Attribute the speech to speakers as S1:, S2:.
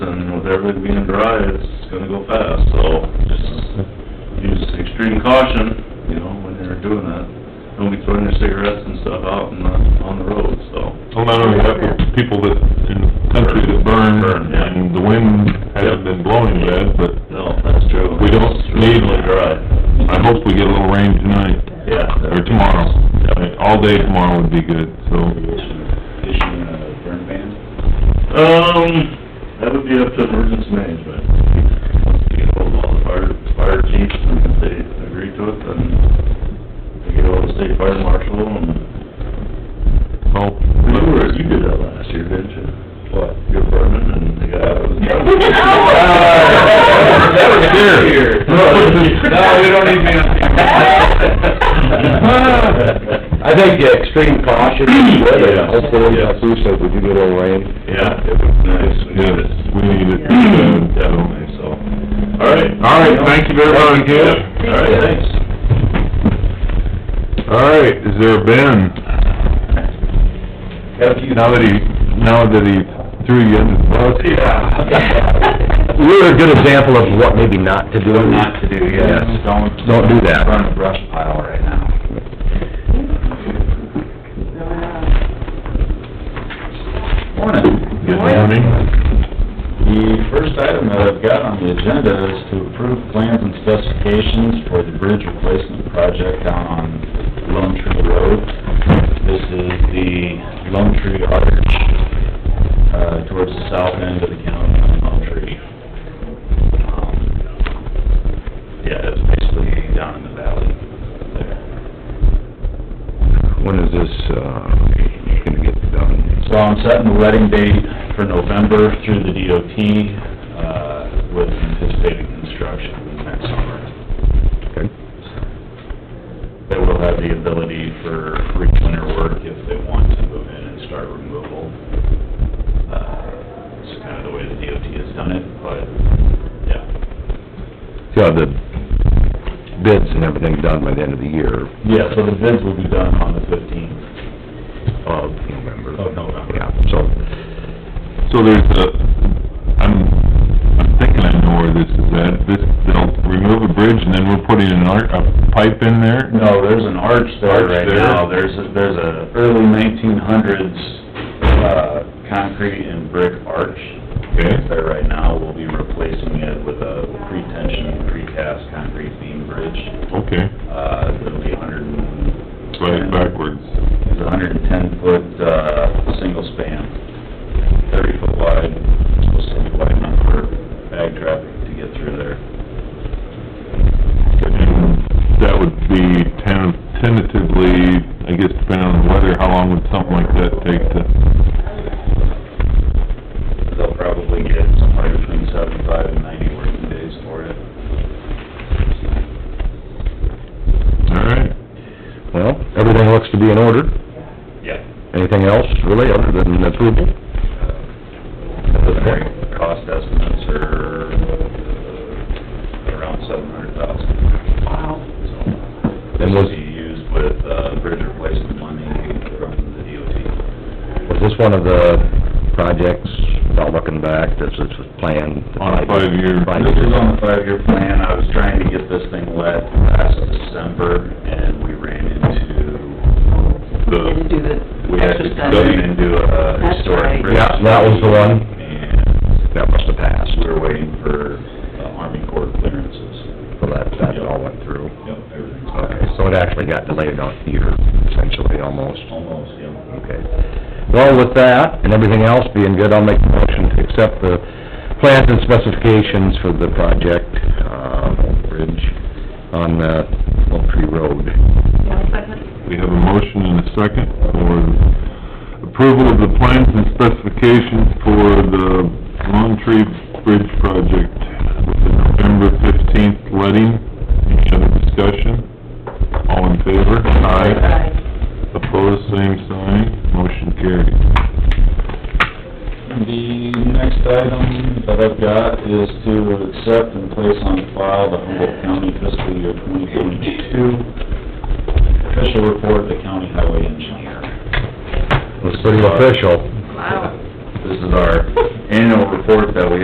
S1: everything being dry, it's gonna go fast, so just use extreme caution, you know, when you're doing that. Don't be throwing your cigarettes and stuff out in the, on the road, so.
S2: Well, not only that, but people that, in the country that burn,
S1: Burn, yeah.
S2: and the wind hasn't been blowing yet, but
S1: No, that's true.
S2: We don't
S1: It's
S2: need-
S1: really dry.
S2: I hope we get a little rain tonight,
S1: Yeah.
S2: or tomorrow. All day tomorrow would be good, so.
S3: issuing a burn ban?
S1: Um, that would be up to emergency management. Once we get hold of all the fire, fire chiefs, and if they agree to it, then we get all the state fire marshal and...
S2: Well,
S1: You were, you did that last year, didn't you? What? Your department and the guy that was...
S2: That was here.
S3: No, we don't need
S1: me.
S4: I think the extreme caution is good,
S1: Yeah.
S4: and hopefully, like Lou said, we do get a little rain.
S1: Yeah, it was nice, we did it.
S2: we need it, uh, so.
S1: Definitely, so, all right.
S2: All right, thank you very much,
S1: Yeah,
S2: Ken.
S1: All right, thanks.
S2: All right, is there Ben? Now that he, now that he threw you in the bus?
S4: Yeah. You're a good example of what maybe not to do.
S3: Not to do, yes, don't.
S4: Don't do that.
S3: Burn a brush pile right now. Morning.
S2: Good morning.
S3: The first item that I've got on the agenda is to approve plans and specifications for the bridge replacement project down on Lone Tree Road. This is the Lone Tree Arch, uh, towards the south end of the county on Lone Tree. Um, Yeah, it's basically down in the valley there.
S4: When is this, uh, gonna get done?
S3: So I'm setting the letting date for November through the DOT, uh, with anticipated construction next summer.
S4: Okay.
S3: They will have the ability for free winter work if they want to move in and start removal. Uh, It's kind of the way the DOT has done it, but, yeah.
S4: Yeah, the bids and everything done by the end of the year
S3: Yeah, so the bids will be done on the fifteenth.
S4: of November.
S3: Of Oh, November.
S4: Yeah, so,
S2: So there's a, I'm, I'm thinking I know where this is at, this, they'll remove a bridge and then we're putting an arc, a pipe in there?
S3: No, there's an arch there
S2: Arch
S3: right
S2: there?
S3: now. There's, a- there's a early nineteen hundreds, uh, concrete and brick arch.
S2: Okay.
S3: that's There right now. We'll be replacing it with a pre-tension, precast concrete beam bridge.
S2: Okay,
S3: Uh, it'll be a hundred and...
S2: right backwards.
S3: It's a hundred and ten foot, uh, single span, thirty foot wide, supposed to be wide enough for bag traffic to get through there.
S2: And That would be ten- tentatively, I guess depending on the weather, how long would something like that take to,
S3: They'll probably get somewhere between seventy-five and ninety working days for it.
S2: all right?
S4: well, everything looks to be in order.
S3: Yeah.
S4: Anything else really other than approval?
S3: Preliminary Uh, cost estimates are uh, around seven hundred thousand. Wow. This
S4: And
S3: will
S4: was-
S3: be used with, uh, bridge replacement money from the DOT.
S4: Was this one of the projects, about looking back, this is planned?
S2: On a five-year-
S3: This
S4: Five-year.
S3: is on the five-year plan, I was trying to get this thing let last December, and we ran into,
S2: The-
S5: Didn't do the
S3: we had to
S5: exercise.
S3: go in and do a historic bridge.
S4: Yeah, that was the one.
S3: And
S4: That must have passed,
S3: we were waiting for uh, Army Corps clearances.
S4: so that, that all went through.
S3: Yep, everything's
S4: Okay,
S3: passed.
S4: so it actually got delayed on a year, essentially, almost.
S3: Almost, yeah.
S4: Okay. Well, with that and everything else being good, I'll make a motion to accept the plans and specifications for the project, uh, bridge on the Oak Tree Road.
S5: One second.
S2: We have a motion and a second for approval of the plans and specifications for the Lone Tree Bridge project with the November fifteenth letting. Any other discussion? All in favor? Aye. Opposed, same sign. Motion carried.
S3: The next item that I've got is to accept and place on file the Humboldt County fiscal year 2022 official report of the county highway engineer.
S4: It's pretty official.
S5: Wow.
S3: This is our annual report that we